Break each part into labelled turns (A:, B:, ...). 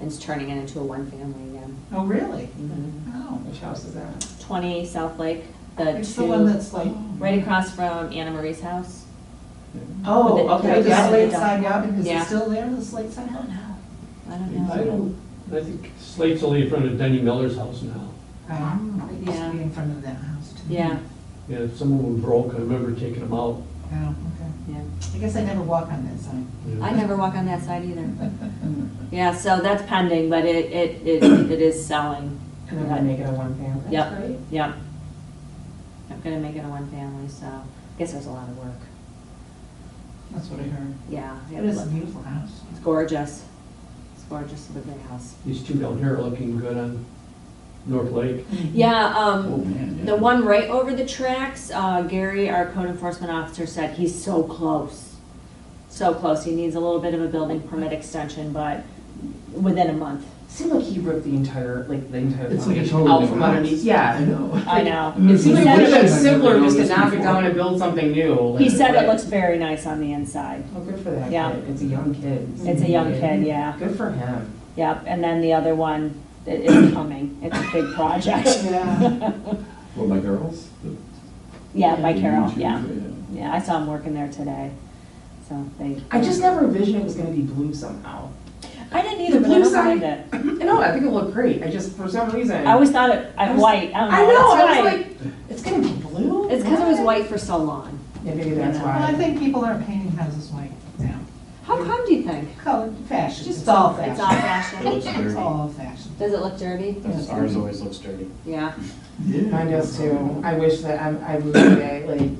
A: and it's turning it into a one-family again.
B: Oh, really?
A: Mhm.
B: Oh, which house is that?
A: Twenty South Lake, the
B: It's the one
A: two,
B: that's like,
A: right across from Anna Marie's house. with
B: oh,
A: the-
B: okay,
A: with the-
B: the Slate Side Robin, is
A: Yeah.
B: it still there, the Slate Side
A: I don't
B: Robin?
A: know, I
C: I
A: don't know.
C: don't, I think Slate's only in front of Denny Miller's house now.
B: Right, Oh, it used
A: Yeah.
B: to be in front of that house too.
A: Yeah,
C: Yeah, some of them broke, I remember taking them out.
B: Oh, okay.
A: yeah.
B: I guess I never walk on that side.
C: you know.
A: I never walk on that side either. Yeah, so that's pending, but it, it, it it is selling.
D: And then I make it a one family.
A: Yep. Yep. I'm gonna make it a one-family, so I guess it was a lot of work.
B: That's what I heard.
A: Yeah.
B: It is a beautiful house.
A: It's gorgeous. It's gorgeous, the big house.
C: These two down here are looking good on North Lake.
A: Yeah,
C: Oh,
A: um,
C: man, yeah.
A: the one right over the tracks, uh, Gary, our code enforcement officer, said he's so close. So close. He needs a little bit of a building permit extension, but within a month.
D: Seemed like he ripped the entire, like, the entire.
E: It's like a
D: foundation
E: total.
D: Out from underneath, yeah.
E: know.
A: I know.
D: It seems like
A: Yeah.
D: it would have been
E: I've never
D: simpler just to
E: noticed
D: knock it
E: before.
D: down and build something new.
A: He
D: like,
A: said
D: but-
A: it looks very nice on the inside.
D: Oh, good for that
A: Yeah.
D: kid. It's a young kid.
A: It's a young kid, yeah.
D: Good for him.
A: Yep, and then the other one, it is coming. It's a big project.
B: Yeah.
E: Well, my girls? the-
A: Yeah, by
E: the
A: Carol,
E: YouTube,
A: yeah. Yeah, I saw him working there today, so they.
D: I just never envisioned it was gonna be blue somehow.
A: I didn't either,
D: The
A: but I
D: blue
A: don't mind it.
D: No, I think it looked great. I just, for some reason.
A: I always thought it,
D: I
A: I'm
D: was-
A: white, I don't know.
D: I know,
A: it's
D: I was
A: white.
D: like, it's gonna be blue?
A: It's because it was
D: What?
A: white for so long.
D: Yeah, maybe that's
A: Well,
D: why.
B: Well, I think people aren't painting houses white now.
A: How come do you think?
B: Color, fashion, it's all
A: It's all
B: fashion.
E: It looks
A: fashion.
B: It's
E: dirty.
B: all fashion.
A: Does it look dirty?
E: That's- Ours always looks dirty.
A: Yeah,
D: Mine does too. I wish that, I'm, I moved today, like,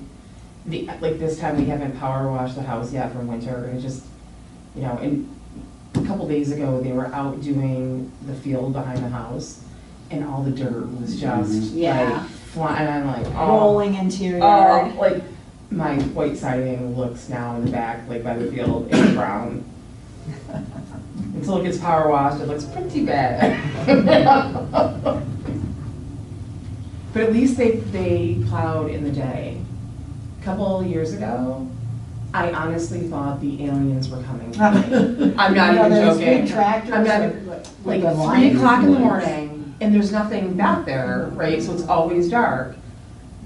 D: the, like this time we haven't power washed the house yet from winter, and it just, you know, and a couple days ago, they were out doing the field behind the house, and all the dirt was just
A: Yeah.
D: like flying, and I'm like, oh.
A: rolling interior.
D: Oh, like, my white siding looks now in the back, like by the field, it's brown. Until it gets power washed, it looks pretty bad. But at least they, they plowed in the day. A Couple of years ago, I honestly thought the aliens were coming. I'm not
B: You know,
D: even
B: there's big
D: joking.
B: Tractors.
D: I'm not-
B: with- with
D: Like
B: the
D: three
B: lines.
D: o'clock in the morning, and there's nothing back there, right, so it's always dark.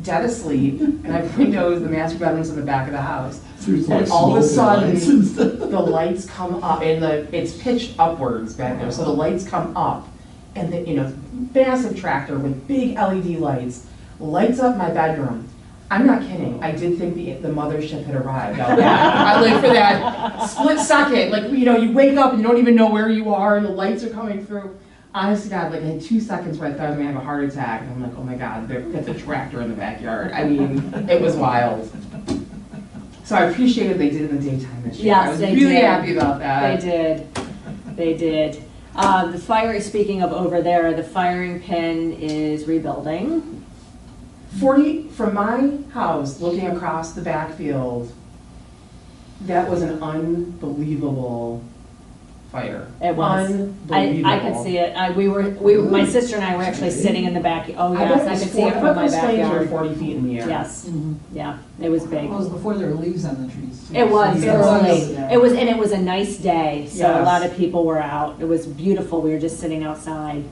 D: Dead asleep, and I have windows, the master bedroom's in the back of the house. And all of a sudden, the lights come up, and the, it's pitched upwards back there, so the lights come up. And the, you know, massive tractor with big LED lights, lights up my bedroom. I'm not kidding, I did think the, the mothership had arrived out there. I lived for that split second, like, you know, you wake up and you don't even know where you are, and the lights are coming through. Honestly, God, like, I had two seconds where I thought I was gonna have a heart attack, and I'm like, oh my God, there- that's a tractor in the backyard. I mean, it was wild. So I appreciated they did it in the daytime this year.
A: Yes, they
D: I was really
A: did.
D: happy about
A: They
D: that.
A: did, they did. Uh, the fire, speaking of over there, the firing pin is rebuilding.
D: Forty, from my house, looking across the backfield, that was an unbelievable fire.
A: It was. I,
D: Unbelievable.
A: I could see it. I, we were, we, my sister and I were actually sitting in the back, oh
D: I
A: yes,
D: bet
A: I
D: those
A: could see
D: four-
A: it from my
D: I bet those flames were
A: backyard.
D: forty feet in the air.
A: Yes,
B: Mhm.
A: yeah, it was big.
B: Well, it was before there were leaves on the trees. too,
A: It
B: so
A: was
B: you
D: Yeah.
B: don't
A: early.
B: notice that.
A: It was, and it was a nice day, so a
D: Yes.
A: lot of people were out. It was beautiful. We were just sitting outside.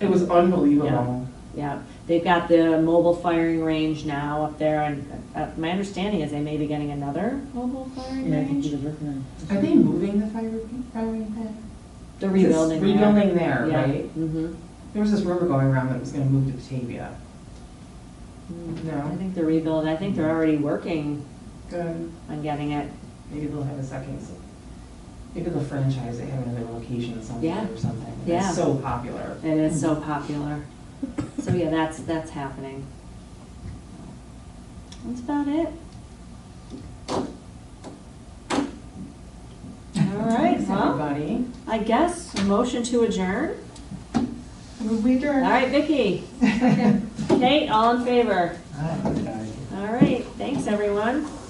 D: It was unbelievable.
A: Yeah, they've got the mobile firing range now up there, and uh, my understanding is they may be getting another mobile firing range.
D: Are they moving the fire, firing pin?
A: They're rebuilding
D: It's
A: there.
D: Rebuilding there,
A: Yeah.
D: right?
A: Mhm.
D: There was this rumor going around that it was gonna move to Batavia.
A: I
D: Mm-hmm. No, Mm-hmm.
A: think they're rebuilding. I think they're already working
D: good.
A: on getting it.
D: Maybe they'll have a second, s- maybe they'll franchise, they have another location
A: Yeah.
D: somewhere or something.
A: Yeah.
D: It's so popular.
A: It is so
D: Mm-hmm.
A: popular. So yeah, that's, that's happening. That's about it. All right,
D: Thanks,
A: well,
D: everybody.
A: I guess motion to adjourn.
B: Move we
A: All
B: adjourn?
A: right, Vicky. Kate, all in favor?
B: Aye.
A: All right, thanks, everyone.